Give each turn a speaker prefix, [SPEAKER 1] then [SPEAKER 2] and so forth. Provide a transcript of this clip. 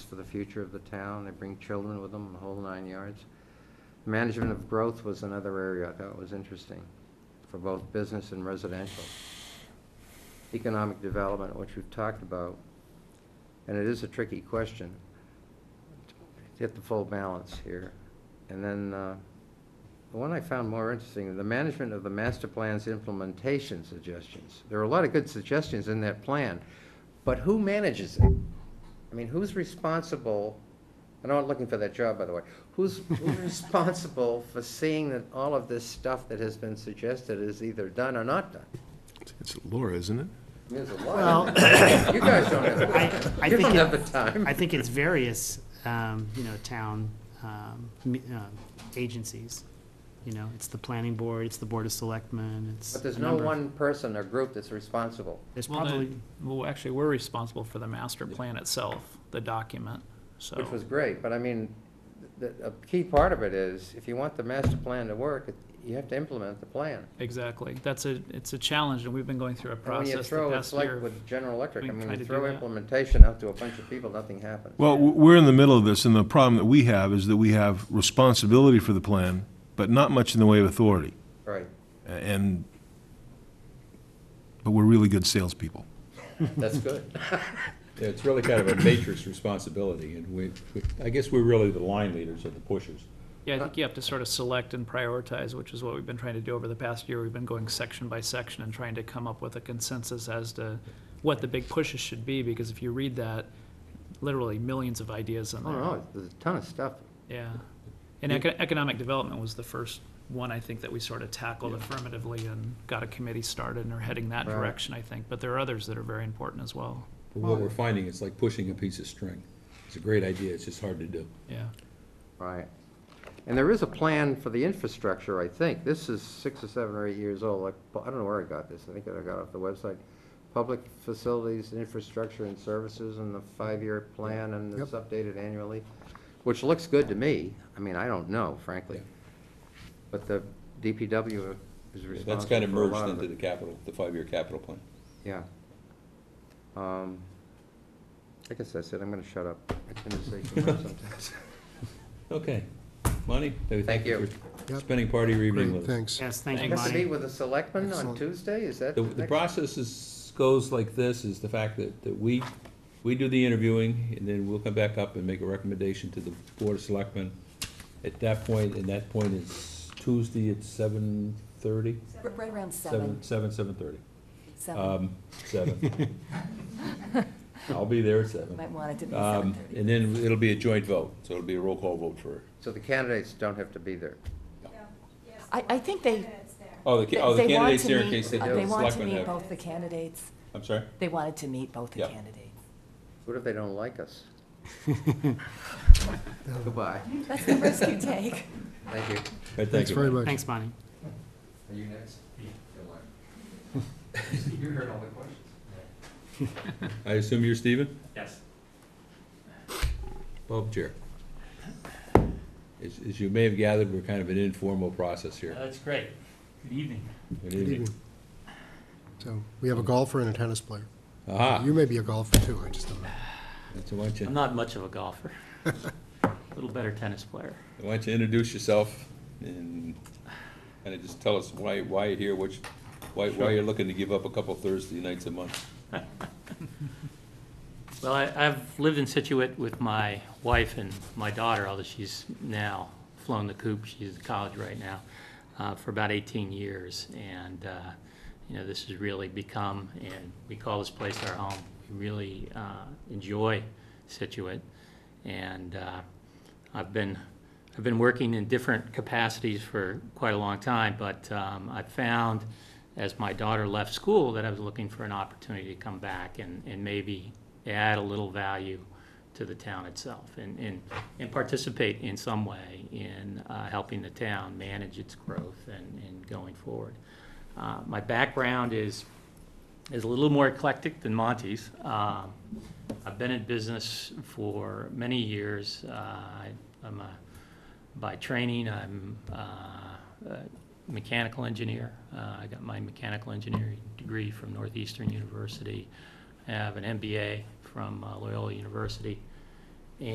[SPEAKER 1] for the future of the town. They bring children with them, the whole nine yards. Management of growth was another area I thought was interesting for both business and residential. Economic development, which we've talked about, and it is a tricky question. Get the full balance here. And then, uh, the one I found more interesting, the management of the master plan's implementation suggestions. There are a lot of good suggestions in that plan, but who manages it? I mean, who's responsible, and I'm not looking for that job, by the way, who's, who's responsible for seeing that all of this stuff that has been suggested is either done or not done?
[SPEAKER 2] It's Laura, isn't it?
[SPEAKER 1] There's a
[SPEAKER 3] Well-
[SPEAKER 1] lot. You guys don't
[SPEAKER 3] I- I
[SPEAKER 1] have, you
[SPEAKER 3] think
[SPEAKER 1] don't
[SPEAKER 3] it-
[SPEAKER 1] have the time.
[SPEAKER 3] I think it's various, um, you know, town, um, me- uh, agencies. You know, it's the planning board, it's the board of selectmen, it's.
[SPEAKER 1] But there's
[SPEAKER 3] a
[SPEAKER 1] no
[SPEAKER 3] number of-
[SPEAKER 1] one person or group that's responsible.
[SPEAKER 3] There's
[SPEAKER 4] Well, the-
[SPEAKER 3] probably,
[SPEAKER 4] Well, actually, we're responsible for the master plan itself, the document, so.
[SPEAKER 1] Which was great, but I mean, the, a key part of it is, if you want the master plan to work, it- you have to implement the plan.
[SPEAKER 4] Exactly. That's a, it's a challenge, and we've been going through a
[SPEAKER 1] And when you
[SPEAKER 4] process the
[SPEAKER 1] throw, it's
[SPEAKER 4] past
[SPEAKER 1] like
[SPEAKER 4] year.
[SPEAKER 1] with General Electric, I
[SPEAKER 4] been
[SPEAKER 1] mean,
[SPEAKER 4] trying
[SPEAKER 1] you
[SPEAKER 4] to
[SPEAKER 1] throw
[SPEAKER 4] do that.
[SPEAKER 1] implementation out to a bunch of people, nothing happens.
[SPEAKER 2] Well, w- we're in the middle of this, and the problem that we have is that we have responsibility for the plan, but not much in the way of authority.
[SPEAKER 1] Right,
[SPEAKER 2] A- And, but we're really good salespeople.
[SPEAKER 1] that's good.
[SPEAKER 5] Yeah, it's really kind of a matrix responsibility, and we, we- I guess we're really the line leaders of the pushers.
[SPEAKER 4] Yeah, I think you have to sort of select and prioritize, which is what we've been trying to do over the past year. We've been going section by section and trying to come up with a consensus as to what the big pushes should be, because if you read that, literally millions of ideas in
[SPEAKER 1] Oh,
[SPEAKER 4] there.
[SPEAKER 1] no, there's a ton of stuff.
[SPEAKER 4] Yeah. And eco- economic development was the first one, I think, that we sort of tackled affirmatively and got a committee started and are heading that
[SPEAKER 1] Right.
[SPEAKER 4] direction, I think. But there are others that are very important as well.
[SPEAKER 5] But what we're finding is like pushing a piece of string. It's a great idea, it's just hard to do.
[SPEAKER 4] Yeah.
[SPEAKER 1] Right. And there is a plan for the infrastructure, I think. This is six or seven or eight years old. Like, I don't know where I got this. I think I got it off the website. Public facilities, infrastructure and services and the five-year plan and it's updated annually, which looks good to me. I mean, I don't know, frankly.
[SPEAKER 5] Yeah.
[SPEAKER 1] But the DPW is
[SPEAKER 5] That's
[SPEAKER 1] responsible
[SPEAKER 5] kind of
[SPEAKER 1] for a lot
[SPEAKER 5] merged
[SPEAKER 1] of
[SPEAKER 5] into
[SPEAKER 1] it.
[SPEAKER 5] the capital, the five-year capital plan.
[SPEAKER 1] Yeah. Um, I guess that's it. I'm gonna shut up. I tend to say too much sometimes.
[SPEAKER 5] Okay. Monty?
[SPEAKER 1] Thank you.
[SPEAKER 5] for Spending part of your evening
[SPEAKER 6] Great,
[SPEAKER 5] with us.
[SPEAKER 6] thanks.
[SPEAKER 3] yes, thank you,
[SPEAKER 1] Has to meet
[SPEAKER 3] Monty.
[SPEAKER 1] with the selectmen on
[SPEAKER 6] Excellent.
[SPEAKER 1] Tuesday? Is that?
[SPEAKER 5] The,
[SPEAKER 1] next-
[SPEAKER 5] the process is, goes like this, is the fact that, that we, we do the interviewing, and then we'll come back up and make a recommendation to the Board of Selectmen. At that point, and that point is Tuesday at seven thirty?
[SPEAKER 7] R- Right around seven,
[SPEAKER 5] Seven, seven, seven thirty.
[SPEAKER 7] seven.
[SPEAKER 5] Um, seven. I'll be there at
[SPEAKER 7] Might
[SPEAKER 5] seven.
[SPEAKER 7] want it to be seven
[SPEAKER 5] Um,
[SPEAKER 7] thirty.
[SPEAKER 5] and then it'll be a joint vote, so it'll be a roll call vote for,
[SPEAKER 1] So the candidates don't have to be there.
[SPEAKER 7] I, I think they,
[SPEAKER 5] oh, the,
[SPEAKER 7] they
[SPEAKER 5] ca- oh, the
[SPEAKER 7] they
[SPEAKER 5] candidates
[SPEAKER 7] want to
[SPEAKER 5] there in
[SPEAKER 7] meet-
[SPEAKER 5] case they
[SPEAKER 7] uh,
[SPEAKER 5] do.
[SPEAKER 7] They want to
[SPEAKER 5] Selectmen
[SPEAKER 7] meet
[SPEAKER 5] have.
[SPEAKER 7] both the candidates.
[SPEAKER 5] I'm sorry?
[SPEAKER 7] They wanted to meet both the
[SPEAKER 5] Yeah.
[SPEAKER 7] candidates.
[SPEAKER 1] What if they don't like us? Goodbye.
[SPEAKER 7] That's the risk you take.
[SPEAKER 1] Thank you.
[SPEAKER 5] Right, thank
[SPEAKER 6] Thanks
[SPEAKER 5] you.
[SPEAKER 6] very much.
[SPEAKER 3] Thanks, Bonnie.
[SPEAKER 1] Are you next? You heard all the questions.
[SPEAKER 5] I assume you're Stephen?
[SPEAKER 4] Yes.
[SPEAKER 5] Bob Chair. As, as you may have gathered, we're kind of an informal process here.
[SPEAKER 8] That's great. Good evening.
[SPEAKER 5] Good
[SPEAKER 6] Good
[SPEAKER 5] evening.
[SPEAKER 6] evening. So, we have a golfer and a tennis player.
[SPEAKER 5] Aha,
[SPEAKER 6] You may be a golfer too, I just don't know.
[SPEAKER 5] so why don't
[SPEAKER 8] I'm
[SPEAKER 5] you,
[SPEAKER 8] not much of a golfer. A little better tennis player.
[SPEAKER 5] why don't you introduce yourself and kind of just tell us why, why you're here, which, why, why you're looking to give up a couple Thursday nights a month?
[SPEAKER 8] Well, I, I've lived in Situate with my wife and my daughter, although she's now flown the coop, she's in college right now, uh, for about 18 years. And, uh, you know, this has really become, and we call this place our home. We really uh, enjoy Situate. And uh, I've been, I've been working in different capacities for quite a long time, but um, I found as my daughter left school that I was looking for an opportunity to come back and, and maybe add a little value to the town itself and, and, and participate in some way in uh, helping the town manage its growth and, and going forward. Uh, My background is is a little more eclectic than Monty's. Um, I've been in business for many years. Uh, I- I'm a, by training, I'm uh, a mechanical engineer. Uh, I got my mechanical engineering degree from Northeastern University. I have an MBA from uh, Loyola University.